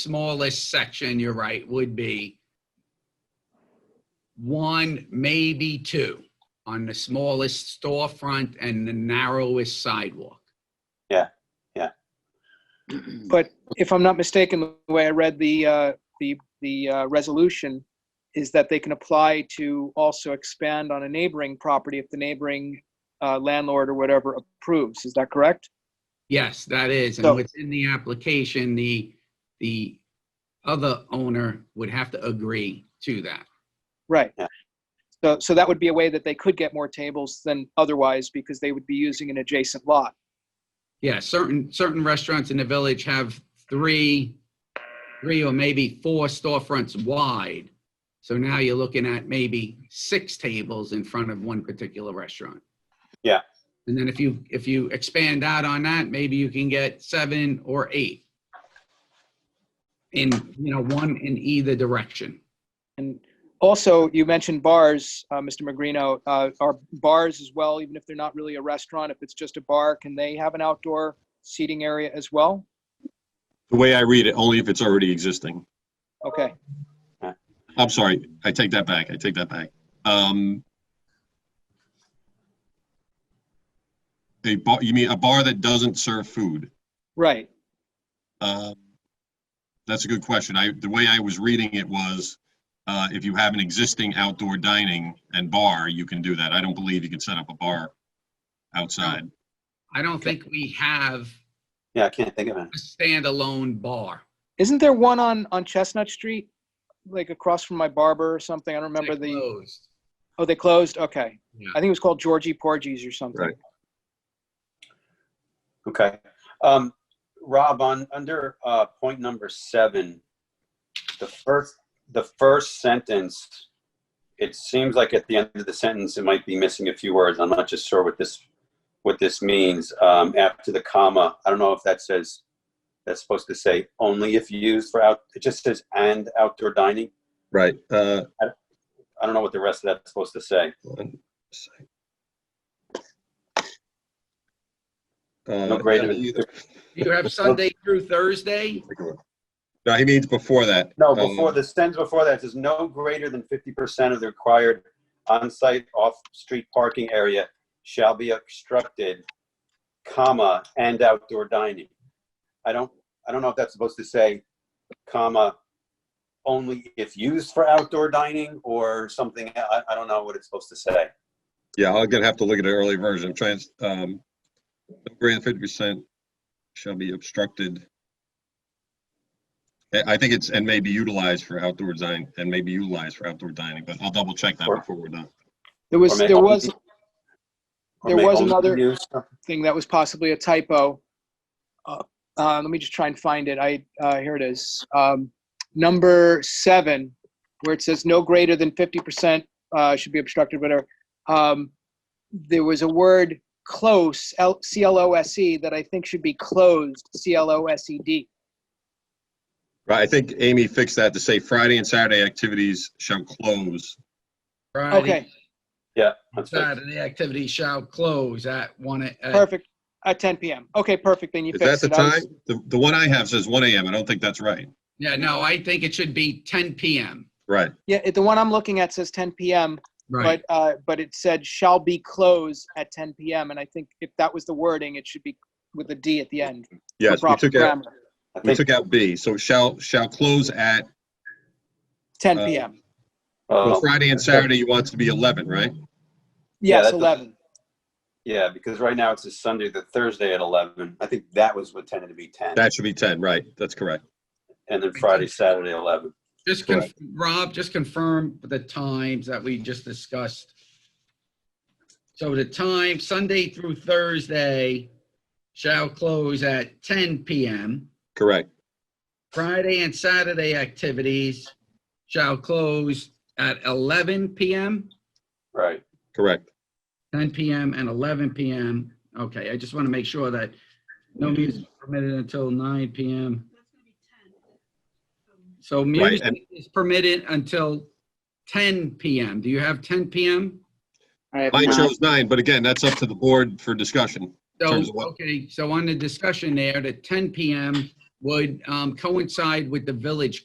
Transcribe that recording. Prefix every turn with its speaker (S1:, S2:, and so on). S1: smallest section, you're right, would be one, maybe two, on the smallest storefront and the narrowest sidewalk.
S2: Yeah, yeah.
S3: But if I'm not mistaken, the way I read the, uh, the, the uh, resolution is that they can apply to also expand on a neighboring property if the neighboring uh, landlord or whatever approves. Is that correct?
S1: Yes, that is,
S3: So-
S1: and what's in the application, the, the other owner would have to agree to that.
S3: Right.
S2: Yeah.
S3: So, so that would be a way that they could get more tables than otherwise because they would be using an adjacent lot.
S1: Yeah, certain, certain restaurants in the village have three, three or maybe four storefronts wide. So now you're looking at maybe six tables in front of one particular restaurant.
S2: Yeah.
S1: And then if you, if you expand out on that, maybe you can get seven or eight. In, you know, one in either direction.
S3: And also, you mentioned bars, uh, Mr. Magrino. Uh, are bars as well, even if they're not really a restaurant, if it's just a bar, can they have an outdoor seating area as well?
S4: The way I read it, only if it's already existing.
S3: Okay.
S4: I'm sorry, I take that back, I take that back. Um, a bar, you mean a bar that doesn't serve food?
S3: Right.
S4: Um, That's a good question. I, the way I was reading it was, uh, if you have an existing outdoor dining and bar, you can do that. I don't believe you can set up a bar outside.
S1: I don't think we have
S2: Yeah, I can't think of it.
S1: a standalone bar.
S3: Isn't there one on on Chestnut Street, like across from my barber or something? I don't remember
S1: They're
S3: the.
S1: closed.
S3: Oh, they closed. Okay.
S1: Yeah.
S3: I think it was called Georgie Porgies or something.
S4: Right.
S2: Okay. Um, Rob, on, under, uh, point number seven, the first, the first sentence, it seems like at the end of the sentence, it might be missing a few words. I'm not just sure what this, what this means. Um, after the comma, I don't know if that says, that's supposed to say only if used for out, it just says and outdoor dining.
S4: Right. uh,
S2: I don't know what the rest of that's supposed to say.
S4: one sec.
S2: No
S4: Uh,
S2: greater than-
S4: either-
S1: You have Sunday through Thursday?
S4: No, he means before that.
S2: No,
S4: Um,
S2: before, the sentence before that says no greater than fifty percent of the required on-site off-street parking area shall be obstructed, comma, and outdoor dining. I don't, I don't know if that's supposed to say, comma, only if used for outdoor dining or something. I, I don't know what it's supposed to say.
S4: Yeah, I'm gonna have to look at an early version. I'm trying, um, no greater than fifty percent shall be obstructed. I, I think it's, and may be utilized for outdoor dining, and may be utilized for outdoor dining, but I'll double check that
S2: Sure.
S4: before we're done.
S3: There
S2: Or
S3: was
S2: may
S3: there
S2: only
S3: was
S2: be- or
S3: there
S2: may
S3: was
S2: only be
S3: another-
S2: used-
S3: thing that was possibly a typo. Uh, uh, let me just try and find it. I uh, here it is. Um, number seven, where it says no greater than fifty percent uh, should be obstructed. Whatever. Um, there was a word close, L- C L O S E, that I think should be closed, C L O S E D.
S4: Right, I think Amy fixed that to say Friday and Saturday activities shall close.
S3: Okay,
S2: Yeah. that's right.
S1: Saturday activity shall close at one, uh, a- at
S3: perfect. At ten p.m. Okay, perfect. Then you
S4: Is that
S3: fixed
S4: the
S3: it. I was-
S4: time? The, the one I have says one AM. I don't think that's right.
S1: Yeah, no, I think it should be 10 PM.
S4: Right,
S3: yeah, it- the one I'm looking at says ten p.m. but uh, but it said shall be closed at 10 p.m. And I think if that was the wording, it should be with a D at the end. for
S4: yes, we
S3: proper
S4: took out,
S3: grammar.
S2: I
S4: we
S2: think,
S4: took out B, so shall, shall close at,
S3: 10
S4: uh,
S3: p.m.
S4: well,
S2: oh,
S4: Friday and Saturday you want it to be eleven, right?
S2: yeah,
S3: Yes,
S2: that doesn't-
S3: 11.
S2: yeah, because right now it's a Sunday, the Thursday at eleven. I think that was what tended to be ten.
S4: That should be ten, right, that's correct.
S2: And then Friday, Saturday, 11.
S1: Just, conf- Rob, just confirm the times that we just discussed. So the time, Sunday through Thursday, shall close at 10 PM.
S4: Correct.
S1: Friday and Saturday activities shall close at 11 PM,
S2: Right.
S4: Correct.
S1: 10 PM and 11 PM. Okay, I just want to make sure that no music permitted until 9 PM. So
S4: Right,
S1: music is permitted until 10 PM. Do you have 10 PM?
S3: I have
S4: Mine
S3: nine.
S4: shows nine, but again, that's up to the board for discussion.
S1: So,
S4: Terms of what?
S1: okay, so on the discussion there, the 10 PM would um, coincide with the village